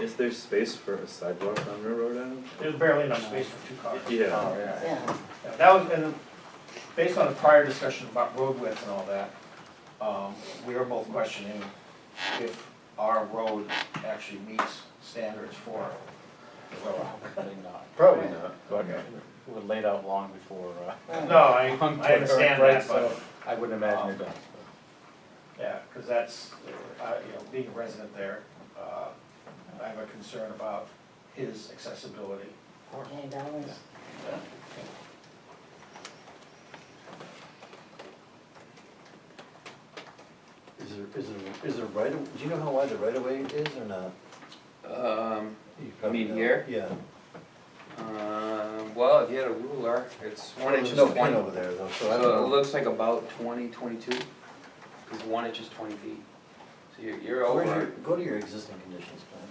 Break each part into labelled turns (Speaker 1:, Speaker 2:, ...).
Speaker 1: Is there space for a sidewalk on Railroad Avenue?
Speaker 2: There's barely enough space for two cars.
Speaker 1: Yeah,
Speaker 3: Oh, yeah.
Speaker 4: Yeah,
Speaker 2: Yeah, That was, and based on the prior discussion about road width and all that, um, we were both questioning if our road actually meets standards for the road.
Speaker 3: Probably not.
Speaker 5: Probably not, but
Speaker 2: Okay.
Speaker 3: It was laid out long before, uh.
Speaker 4: right.
Speaker 2: No, I,
Speaker 3: long
Speaker 2: I understand
Speaker 3: before, right,
Speaker 2: that, but,
Speaker 3: so I wouldn't imagine
Speaker 5: Um,
Speaker 3: it does.
Speaker 2: yeah, cause that's, uh, you know, being a resident there, uh, I have a concern about his accessibility.
Speaker 4: Okay, that was,
Speaker 5: is there, is there, is there right, of- do you know how wide the right of way is or not?
Speaker 6: Um,
Speaker 5: You probably
Speaker 6: mean
Speaker 5: know.
Speaker 6: here?
Speaker 5: Yeah.
Speaker 6: uh, well, if you had a ruler, it's one
Speaker 5: There's
Speaker 6: inch is
Speaker 5: no pin
Speaker 6: twenty,
Speaker 5: over there though, so I
Speaker 6: so it
Speaker 5: don't know.
Speaker 6: looks like about twenty, twenty-two, cause one inch is twenty feet. So you're, you're
Speaker 5: Where's your,
Speaker 6: over,
Speaker 5: go to your existing conditions plan.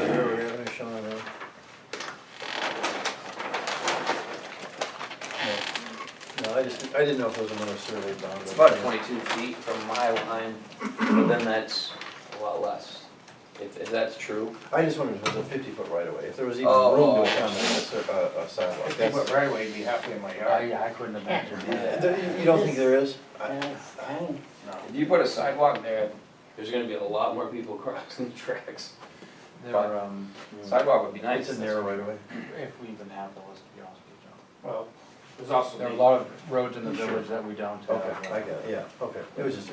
Speaker 5: Where we have it shown on there. No, No, I just, I didn't know if it was another survey done.
Speaker 6: it's about twenty-two feet from my line, but then that's a lot less, if, if that's true.
Speaker 5: I just wondered if it was a fifty foot right of way, if there was even
Speaker 6: Oh,
Speaker 5: room
Speaker 6: oh,
Speaker 5: to
Speaker 6: oh.
Speaker 5: accommodate a sur- a, a sidewalk,
Speaker 2: If they went
Speaker 5: that's.
Speaker 2: right away, it'd be halfway in my
Speaker 3: Uh,
Speaker 2: yard.
Speaker 3: yeah, I couldn't imagine
Speaker 5: Yeah,
Speaker 3: that.
Speaker 5: there- You don't think there is? I-
Speaker 4: that's, I mean,
Speaker 2: No.
Speaker 6: If you put a sidewalk there, there's gonna be a lot more people crossing the tracks.
Speaker 3: There are, um,
Speaker 6: Sidewalk would be nice.
Speaker 5: It's in there right away.
Speaker 3: if we even have those, to be honest with you, John.
Speaker 2: Well, there's also.
Speaker 3: There are a
Speaker 2: the-
Speaker 3: lot of roads in the village that we Oh, don't have.
Speaker 5: Okay, I got it, yeah, okay, it was just a.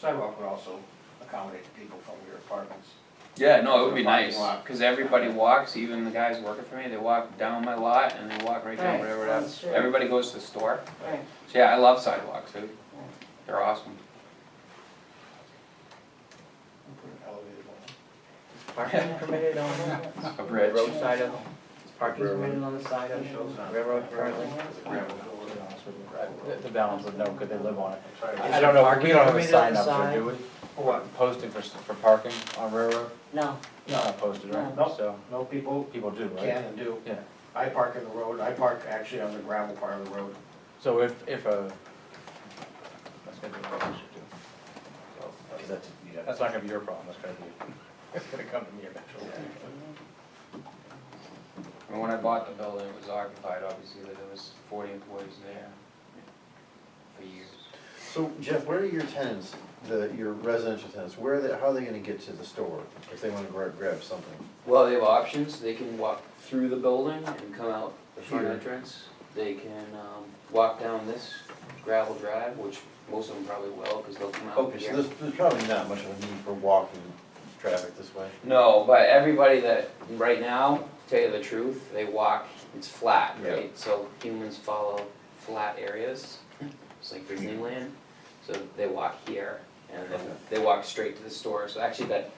Speaker 2: Sidewalk would also accommodate people from your apartments.
Speaker 6: Yeah, no, it would be
Speaker 2: Parking
Speaker 6: nice,
Speaker 2: lot.
Speaker 6: cause everybody walks, even the guys working for me, they walk down my lot and they walk right down
Speaker 4: Right,
Speaker 6: whatever
Speaker 4: on
Speaker 6: that.
Speaker 4: the street.
Speaker 6: Everybody goes to the store,
Speaker 4: right,
Speaker 6: so yeah, I love sidewalks, dude, they're awesome.
Speaker 2: Put an elevated one.
Speaker 7: Parking permitted on
Speaker 4: right.
Speaker 6: A bridge.
Speaker 7: roadside of, is parking
Speaker 1: Railroad.
Speaker 7: permitted on the side of
Speaker 2: Shows not-
Speaker 7: railroad currently?
Speaker 2: It's a gravel building.
Speaker 3: To be honest with you, I- The, the balance would know, could they live on it?
Speaker 2: Sorry.
Speaker 3: I I don't know, we don't have a
Speaker 7: Parking on
Speaker 3: sign
Speaker 7: the
Speaker 3: up
Speaker 7: side?
Speaker 3: there, do we?
Speaker 2: For what?
Speaker 3: Posting for, s- for parking on railroad?
Speaker 4: No,
Speaker 3: It's not posted, right?
Speaker 2: No.
Speaker 3: So,
Speaker 2: No, people
Speaker 3: people do, right?
Speaker 2: can and do.
Speaker 3: Yeah.
Speaker 2: I park in the road, I park actually on the gravel part of the road.
Speaker 3: So if, if a, that's gonna be what we should do. So,
Speaker 5: Cause that's, yeah.
Speaker 3: That's not gonna be your problem, that's gonna be, it's gonna come to me eventually.
Speaker 6: And when I bought the building, it was occupied, obviously, there was forty employees there for years.
Speaker 5: So Jeff, where are your tenants, the, your residential tenants, where are they, how are they gonna get to the store if they wanna grab, grab something?
Speaker 6: Well, they have options, they can walk through the building and come out the front
Speaker 5: Here.
Speaker 6: entrance, they can, um, walk down this gravel drive, which most of them probably will, cause they'll come out here.
Speaker 5: Okay, so there's, there's probably not much of a need for walking traffic this way.
Speaker 6: No, but everybody that, right now, to tell you the truth, they walk, it's flat,
Speaker 5: Yeah.
Speaker 6: right? So humans follow flat areas, it's like Disneyland, so they walk here, and then
Speaker 5: Okay.
Speaker 6: they walk straight to the store, so actually that,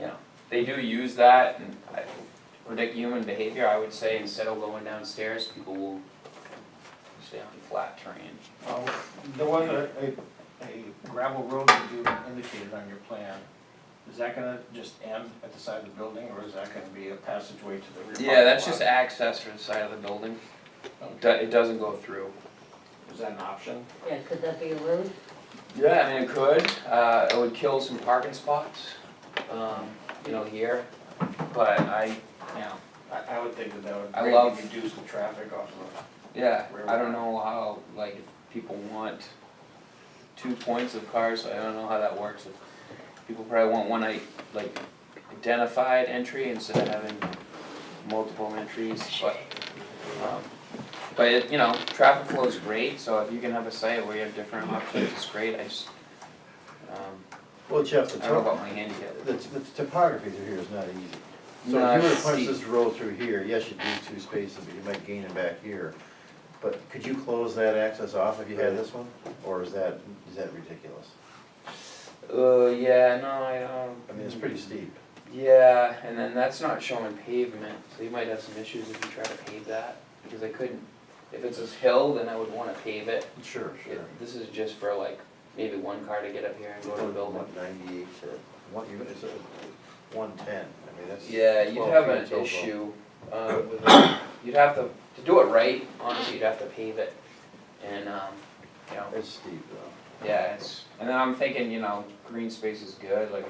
Speaker 6: you know, they do use that, and I, predict human behavior, I would say, instead of going downstairs, people will stay on flat terrain.
Speaker 2: Um, There was a, a- a gravel road that you indicated on your plan. Is that gonna just end at the side of the building, or is that gonna be a passageway to the rear?
Speaker 6: Yeah, that's
Speaker 2: parking
Speaker 6: just
Speaker 2: lot?
Speaker 6: access for the side of the building, it do- it doesn't go through.
Speaker 2: Is that an option?
Speaker 4: yeah, could that be a road?
Speaker 6: Yeah, I mean, it could, uh, it would kill some parking spots, um, you know, here, but I, you know,
Speaker 2: I, I would think that that would
Speaker 6: I
Speaker 2: greatly
Speaker 6: love-
Speaker 2: reduce the traffic off of.
Speaker 6: yeah, I don't know how, like, if people want two points of cars, I don't know how that works. If People probably want one, I, like, identified entry instead of having multiple entries, but, um, but, it- you know, traffic flow is great, so if you can have a site where you have different options, it's great, I just, um,
Speaker 5: Well, Jeff, the
Speaker 6: I don't know about
Speaker 5: top,
Speaker 6: my handicap.
Speaker 5: the, the topography through here is not easy. So
Speaker 6: No,
Speaker 5: if you were to
Speaker 6: it's
Speaker 5: punch
Speaker 6: steep.
Speaker 5: this road through here, yes, you'd lose two spaces, but you might gain them back here. But could you close that access off if you had this one, or is that, is that ridiculous?
Speaker 6: Uh, yeah, no, I don't.
Speaker 5: I mean, it's pretty steep.
Speaker 6: Yeah, and then that's not showing pavement, so you might have some issues if you try to pave that, because I couldn't, if it's a hill, then I would wanna pave it.
Speaker 5: Sure,
Speaker 6: It- This is just for like, maybe one car to get up here and go to the building.
Speaker 5: Ninety-eight to, one, you're, it's one-ten, I mean, that's.
Speaker 6: Yeah, you'd
Speaker 5: 12
Speaker 6: have
Speaker 5: feet
Speaker 6: an
Speaker 5: total.
Speaker 6: issue, um, with, it. you'd have to, to do it right, honestly, you'd have to pave it, and, um, you know,
Speaker 5: It's steep though.
Speaker 6: yeah, it's, and then I'm thinking, you know, green space is good, like,